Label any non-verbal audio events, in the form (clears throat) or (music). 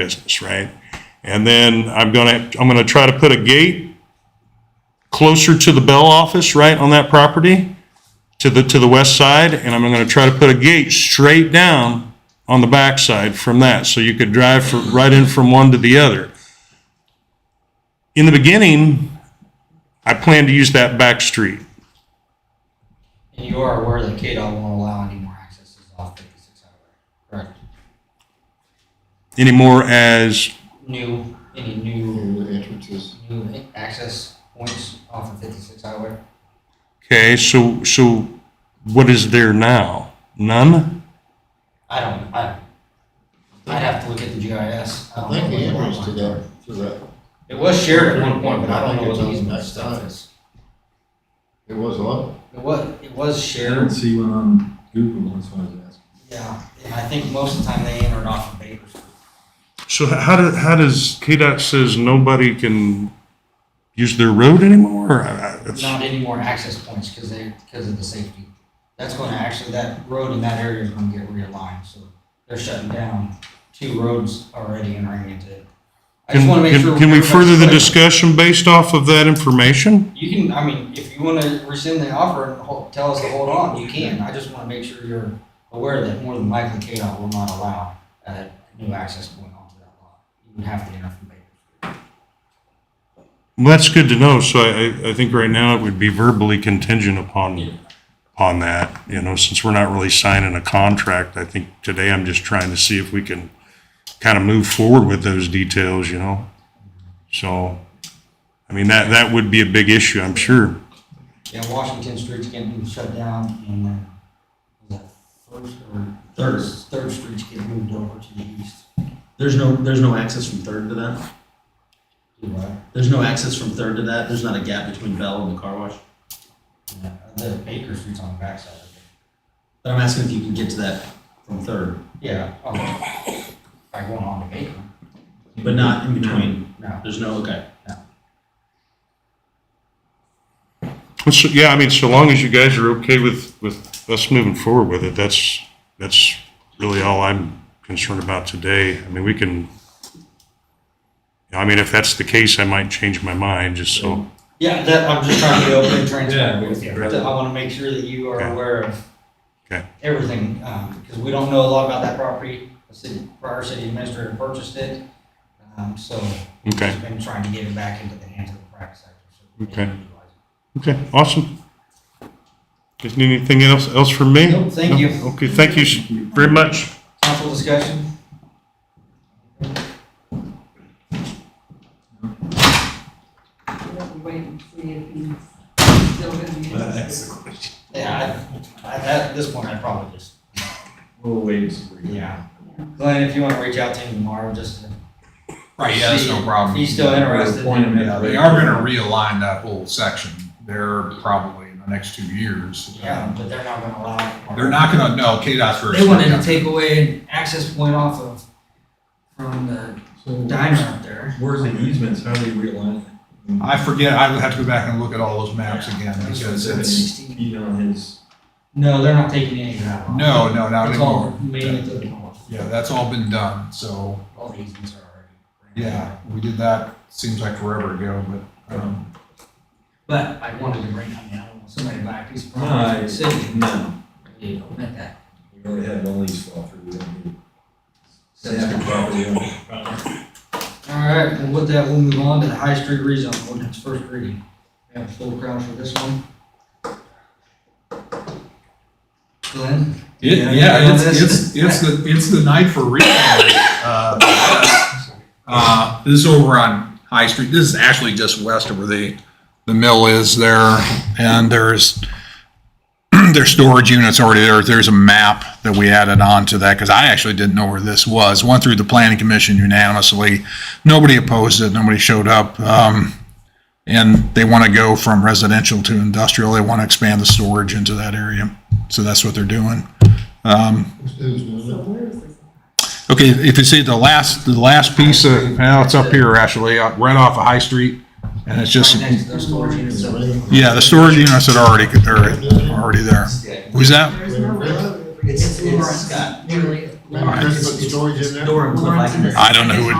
business, right? And then I'm gonna, I'm gonna try to put a gate closer to the Bell office, right, on that property, to the, to the west side, and I'm gonna try to put a gate straight down on the backside from that, so you could drive fr- right in from one to the other. In the beginning, I plan to use that back street. And you are aware that KDOT won't allow any more accesses off fifty-six highway, correct? anymore as, New, any new, new entrances. new access points off of fifty-six highway? okay, so, so what is there now? None? I don't, I, I'd have to look at the GIS. I don't think the know what entrance to lines are. that, to that, It was shared at one point, but I don't know I what think the it's easement next stuff time. is. it was what? It was, it was I didn't shared, see one on Google, that's why I was asking. yeah, and I think most of the time they entered off of Baker Street. So how do, how does, KDOT says nobody can use their road anymore? I- I- it's- Not any more access points because they, because of the safety. That's going to actually, that road in that area is going to get realigned, so they're shutting down two roads already entering into it. I just Can- want to make can- sure. Can we everybody's further the clear. discussion based off of that information? You can, I mean, if you want to rescind the offer and hol- tell us to hold on, you can. I just want to make sure you're aware that more than likely KDOT will not allow a new access point onto that lot. You would have to enter from Baker Street. Well, that's good to know, so I, I- I think right now it would be verbally contingent Yeah. upon, upon that, you know, since we're not really signing a contract, I think today I'm just trying to see if we can kind of move forward with those details, you know? So, I mean, that, that would be a big issue, I'm sure. Yeah, Washington Street's getting shut down and then the first or. Third. Third Street's getting moved over to the east. There's no there's no access from third to that. Do what? There's no access from third to that. There's not a gap between Bell and the car wash. Yeah, The Baker Street's on the backside of it. But I'm asking if you can get to that from third, Yeah. oh. okay. By going on to Baker. but not in between. No. There's no okay. Well, So, yeah, I mean, so long as you guys are okay with, with us moving forward with it, that's, that's really all I'm concerned about today. I mean, we can, I mean, if that's the case, I might change my mind, just so. Yeah, that, I'm just trying to be open and transparent with you. Yeah. I want to make sure that you are Okay. aware of Okay. everything, um, because we don't know a lot about that property. The city, prior city administrator purchased it, um, so we've Okay, just been trying to get it back into the hands of the private sector. so we Okay. can utilize okay, awesome. Guys need anything else, else from me? it. Nope, thank you. Okay, thank you s- very much. Council discussion? We'll have to wait and see if he's still gonna be. Yeah, I, I, at this point, I probably just, We'll wait and see. yeah. Glenn, if you want to reach out to him tomorrow, just to Right, yeah, that's no problem. He's still interested. Point him at the- They are gonna realign that whole section. They're probably in the next two years. Yeah, but they're not gonna allow. it. They're not gonna, no, KDOT's first. They wanted to take away an access point off of, from the diner up there. Where's the easements, how do you realign? it? I forget, I would have to go back and look at all those maps again because it's, Feet on his, No, they're not taking any of that off. no, no, not It's all anymore. mainly to the north. Yeah, that's all been done, so, All the easements are already. yeah, we did that, seems like forever ago, but, um, But I wanted to bring, I mean, I don't want somebody to buy a piece of No, property I- in the city. no, You don't want that. we really have one lease fall through, we don't need. So- That's good property owner. All right, well, with that, we'll move on to the High Street rezone ordinance, first reading. We have a full crowd for this one. Glenn? it, Yeah, yeah, it's, on this. it's, it's the, it's the night (coughs) for real. Uh, uh, This is over on High Street. This is actually just west of where the, the mill is there. And there's, (clears throat) there's storage units already there. There's a map that we added on to that because I actually didn't know where this was. Went through the planning commission unanimously. Nobody opposed it. Nobody showed up. Um, And they want to go from residential to industrial. They want to expand the storage into that area. So that's what they're doing. Excuse me. So where is this? Um, Okay, if you see the last, the last piece of, now it's up here actually, uh, right off of High Street. And it's just, Right next to the storage units. up there. yeah, the storage units that are already, are already there. Who's that? There is no road. It's- it's Lawrence, got- Really. Maybe Chris put storage in there? Door and clip like this. I don't know who would